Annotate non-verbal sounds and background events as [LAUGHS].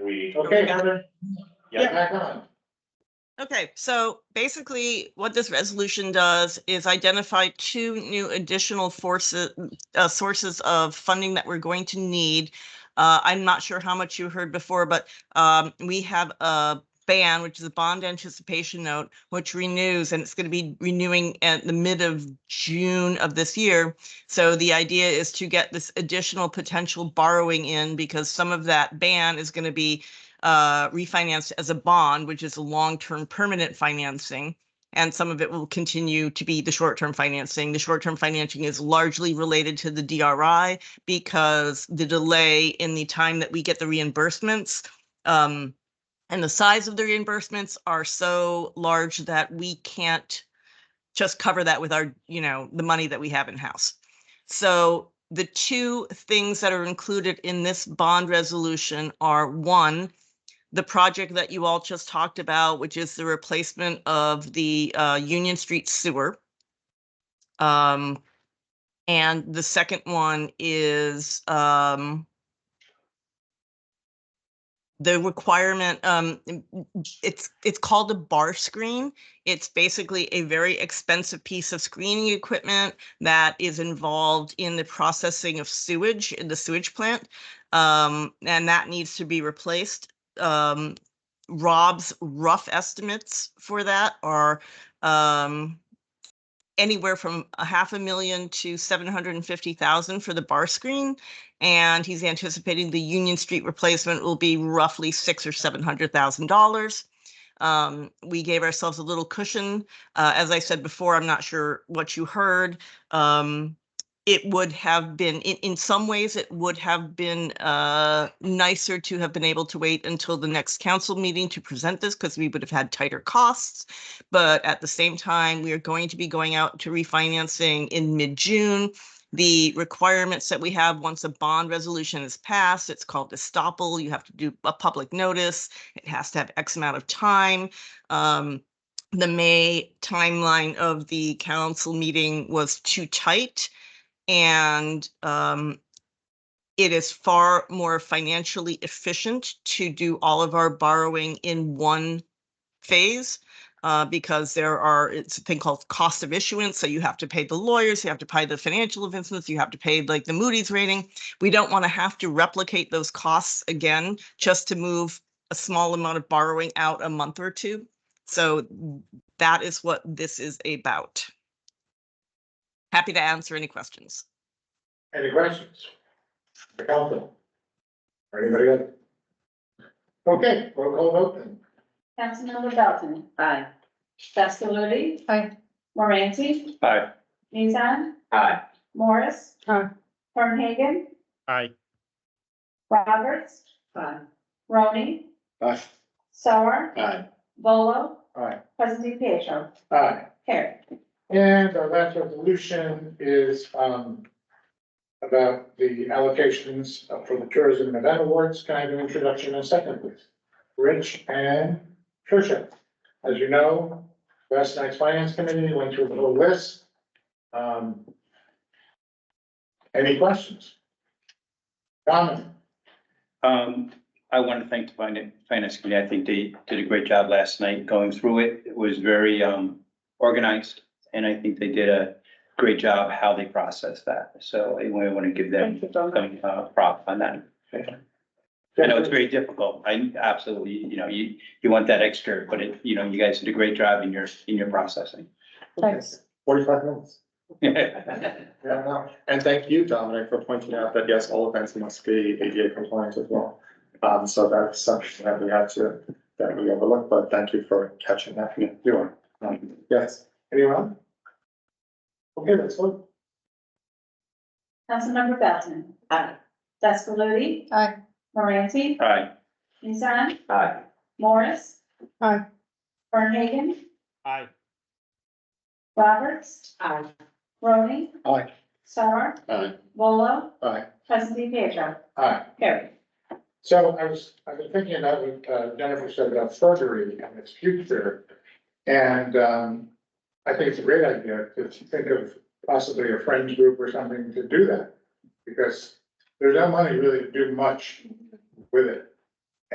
we. Okay, Heather, Yeah. get back on. Okay, so basically what this resolution does is identify two new additional forces, uh, sources of funding that we're going to need. Uh, I'm not sure how much you heard before, but, um, we have a ban, which is a bond anticipation note, which renews and it's going to be renewing at the mid of June of this year. So the idea is to get this additional potential borrowing in because some of that ban is going to be uh, refinanced as a bond, which is a long-term permanent financing. And some of it will continue to be the short-term financing. The short-term financing is largely related to the DRI because the delay in the time that we get the reimbursements um, and the size of the reimbursements are so large that we can't just cover that with our, you know, the money that we have in-house. So the two things that are included in this bond resolution are, one, the project that you all just talked about, which is the replacement of the uh, Union Street sewer. Um, and the second one is um, the requirement, um, it's, it's called a bar screen. It's basically a very expensive piece of screening equipment that is involved in the processing of sewage in the sewage plant. Um, and that needs to be replaced um, Rob's rough estimates for that are um, anywhere from a half a million to seven hundred and fifty thousand for the bar screen. And he's anticipating the Union Street replacement will be roughly six or seven hundred thousand dollars. Um, we gave ourselves a little cushion. Uh, as I said before, I'm not sure what you heard. Um, it would have been, in, in some ways, it would have been uh, nicer to have been able to wait until the next council meeting to present this because we would have had tighter costs. But at the same time, we are going to be going out to refinancing in mid-June. The requirements that we have, once a bond resolution is passed, it's called estoppel. You have to do a public notice. It has to have X amount of time. Um, The May timeline of the council meeting was too tight. And um, it is far more financially efficient to do all of our borrowing in one phase. Uh, because there are, it's a thing called cost of issuance. So you have to pay the lawyers, you have to pay the financial investments, you have to pay like the Moody's rating. We don't want to have to replicate those costs again just to move a small amount of borrowing out a month or two. So that is what this is about. Happy to answer any questions. Any questions? The council? Or anybody else? Okay, roll call vote then. Councilmember Dalton. Aye. Sassaludi. Aye. Moranti. Aye. Nizan. Aye. Morris. Aye. Fernhagen. Aye. Roberts. Aye. Roni. Aye. Sauer. Aye. Volo. Aye. President Pietro. Aye. Carried. And our last resolution is, um, about the allocations for the tourism and event awards. Can I have an introduction in a second, please? Rich and Tricia. As you know, last night's finance committee went through the whole list. Um, any questions? Comment? Um, I want to thank the finan- finance committee. I think they did a great job last night going through it. It was very, um, organized. And I think they did a great job how they processed that. So I want to give them some uh, prop on that. I know it's very difficult. I absolutely, you know, you, you want that extra, but it, you know, you guys did a great job in your, in your processing. [LAUGHS] Thanks. Forty-five minutes. Yeah, I know. And thank you, Dominic, for pointing out that yes, all events must be ADA compliant as well. Um, so that's something that we had to, that we overlooked, but thank you for catching that. You're welcome. Yes, Anyone? Okay, that's one. Councilmember Dalton. Aye. Sassaludi. Aye. Moranti. Aye. Nizan. Aye. Morris. Aye. Fernhagen. Aye. Roberts. Aye. Roni. Aye. Sauer. Aye. Volo. Aye. President Pietro. Aye. Carried. So I was, I've been thinking about what uh, Jennifer said about surgery and its future. And um, I think it's a great idea to think of possibly a friends group or something to do that. Because there's no money really to do much with it.